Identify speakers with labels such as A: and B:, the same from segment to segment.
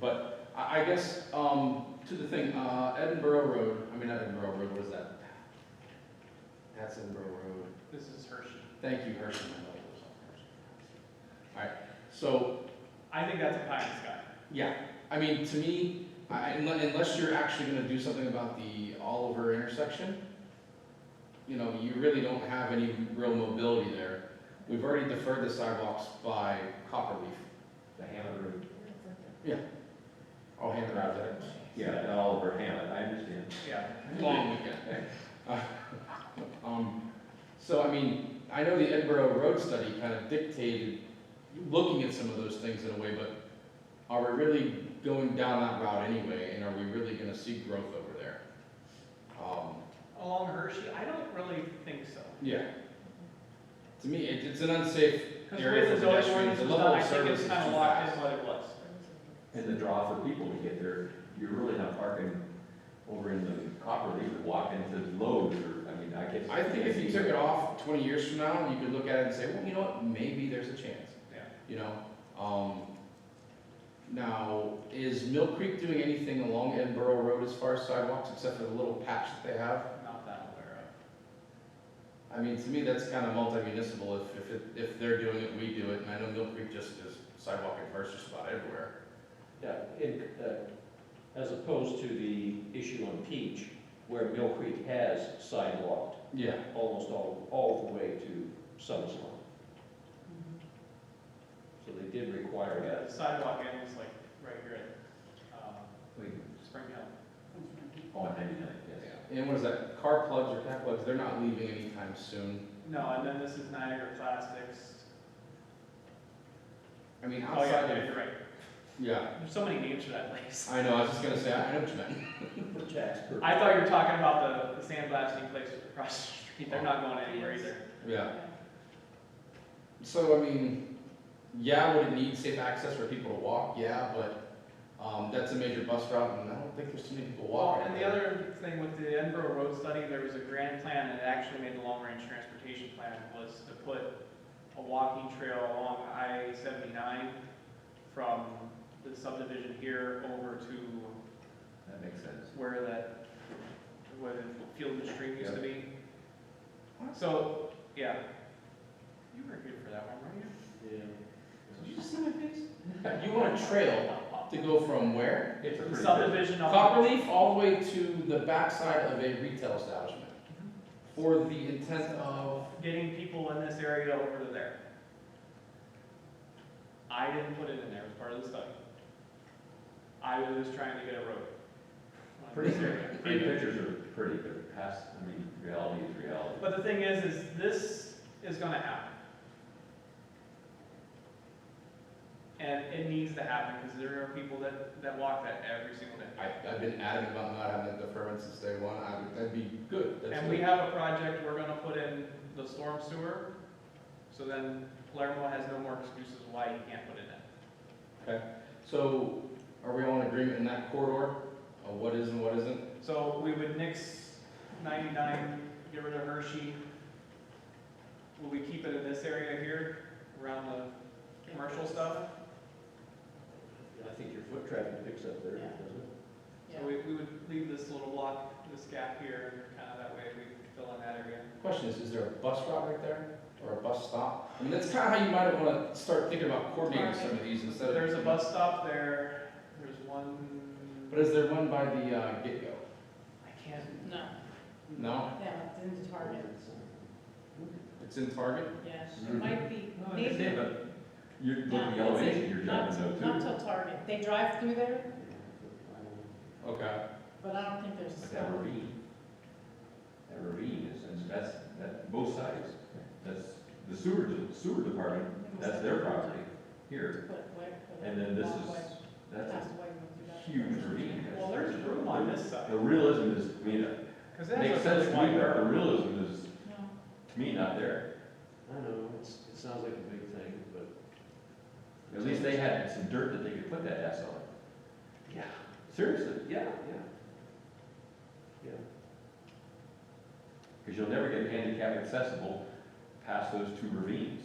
A: But I, I guess, um, to the thing, uh, Edinburgh Road, I mean, not Edinburgh Road, what is that? That's Edinburgh Road.
B: This is Hershey.
A: Thank you, Hershey. I know it was on Hershey. All right, so,
B: I think that's a pie in the sky.
A: yeah, I mean, to me, I, unle- unless you're actually gonna do something about the Oliver intersection, you know, you really don't have any real mobility there. We've already deferred the sidewalks by Copperleaf.
C: The Hammond Road.
A: I'll hand it out there.
C: Yeah, not Oliver Hammond, I understand.
B: Yeah,
A: long weekend. Uh, Um, so, I mean, I know the Edinburgh Road Study kind of dictated looking at some of those things in a way, but are we really going down that route anyway, and are we really gonna see growth over there? Um,
B: along Hershey, I don't really think so.
A: yeah. To me, it, it's an unsafe
B: Because the way
A: area
B: the
A: for
B: zoning
A: pedestrians,
B: ordinance
A: the
B: was
A: level
B: done, I
A: of
B: think
A: service
B: it's
A: is too
B: kind of locked in
A: fast.
B: what it was.
C: And the draw for people to get there, you're really not parking over in the copper, you could walk into Lowe's or, I mean, I guess.
A: I think if you took it off twenty years from now, you could look at it and say, well, you know what, maybe there's a chance.
B: Yeah.
A: you know? Um, now, is Mill Creek doing anything along Edinburgh Road as far as sidewalks, except for the little patch that they have?
B: I'm Not that aware of.
A: I mean, to me, that's kind of multi-municipal, if, if, it- if they're doing it, we do it, and I know Mill Creek just is sidewalk adverse just about everywhere.
D: Yeah, in, uh, as opposed to the issue on Peach, where Mill Creek has sidewalked
A: Yeah.
D: almost all, all the way to Summers Lawn. So they did require that.
B: The sidewalk ends like right here at, um,
C: Wait,
B: Spring Hill.
A: Oh,
C: On ninety-nine, yes.
A: And what is that, car plugs or cat plugs, they're not leaving anytime soon.
B: No, and then this is Niagara Plastics.
A: I mean,
B: Oh, yeah,
A: outside
B: yeah,
A: of,
B: you're right.
A: yeah,
B: There's so many names for that place.
A: I know, I was just gonna say, I know what you meant.
D: For tax purposes.
B: I thought you were talking about the, the sandblasting place across the street. They're not going anywhere either.
A: Yeah. So, I mean, yeah, would it need safe access for people to walk? Yeah, but, um, that's a major bus route and I don't think there's too many people
B: Well,
A: walking.
B: and the other thing with the Edinburgh Road Study, there was a grand plan that actually made the long-range transportation plan, was to put a walking trail along I seventy-nine from the subdivision here over to
C: That makes sense.
B: where that, where the Field and Stream used to be. So, yeah. You were here for that one, weren't you?
D: Yeah.
A: Did you just see my face? You want a trail to go from where?
C: It's a
B: The
C: pretty good.
B: subdivision of.
A: Copperleaf all the way to the backside of a retail establishment for the intent of,
B: getting people in this area over to there. I didn't put it in there, it was part of the study. I was just trying to get a road. on this area.
C: Pretty pictures are pretty, but past, I mean, reality is reality.
B: But the thing is, is this is gonna happen. And it needs to happen, because there are people that, that walk that every single day.
A: I, I've been adamant about not having a deferment since day one, I would, that'd be good, that's
B: And we
A: good.
B: have a project, we're gonna put in the storm sewer, so then Palermo has no more excuses why he can't put it in.
A: So, are we all in agreement in that corridor of what is and what isn't?
B: So we would nix ninety-nine, get rid of Hershey. Will we keep it in this area here, around the commercial stuff?
D: I think your foot traffic picks up there, doesn't
B: So we, we would leave this little block, this gap here, and kind of that way we fill in that area.
A: Question is, is there a bus route right there or a bus stop? I mean, that's kind of how you might want to start thinking about coordinating some of these instead
B: So
A: of.
B: there's a bus stop there, there's one.
A: But is there one by the uh, get-go?
B: I can't,
E: No,
A: No,
E: no, it's in the target,
A: it's in Target.
E: yes, it might be,
B: No, I
C: Yeah,
E: maybe.
C: but you look
E: No,
C: at the
E: that's it.
C: elevation, you're
E: Not
C: driving
E: till-
C: though
E: Not
C: too.
E: till Target, they drive through there,
A: Okay.
E: but I don't think there's a
C: But that
E: stop.
C: ravine, that ravine is, and that's, that, both sides, that's the sewer, de- sewer department, that's their property here.
E: But where- but
C: And then this is,
E: walkway,
C: that's a
E: passageway goes through that.
C: huge ravine.
B: well, there's room on this side,
C: The realism is, I mean, it
B: because that's
C: makes
B: a
C: sense
B: really
C: to
B: wide
C: me, but the
B: road.
C: realism is,
E: No,
C: to me, not there.
D: I don't know, it's, it sounds like a big thing, but.
C: At least they had some dirt that they could put that S on.
D: Yeah.
C: Seriously,
D: Yeah, yeah.
C: because you'll never get handicap accessible past those two ravines.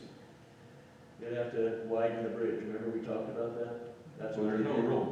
D: Yeah, you'd have to widen the bridge, remember we talked about that? That's
C: So there's no real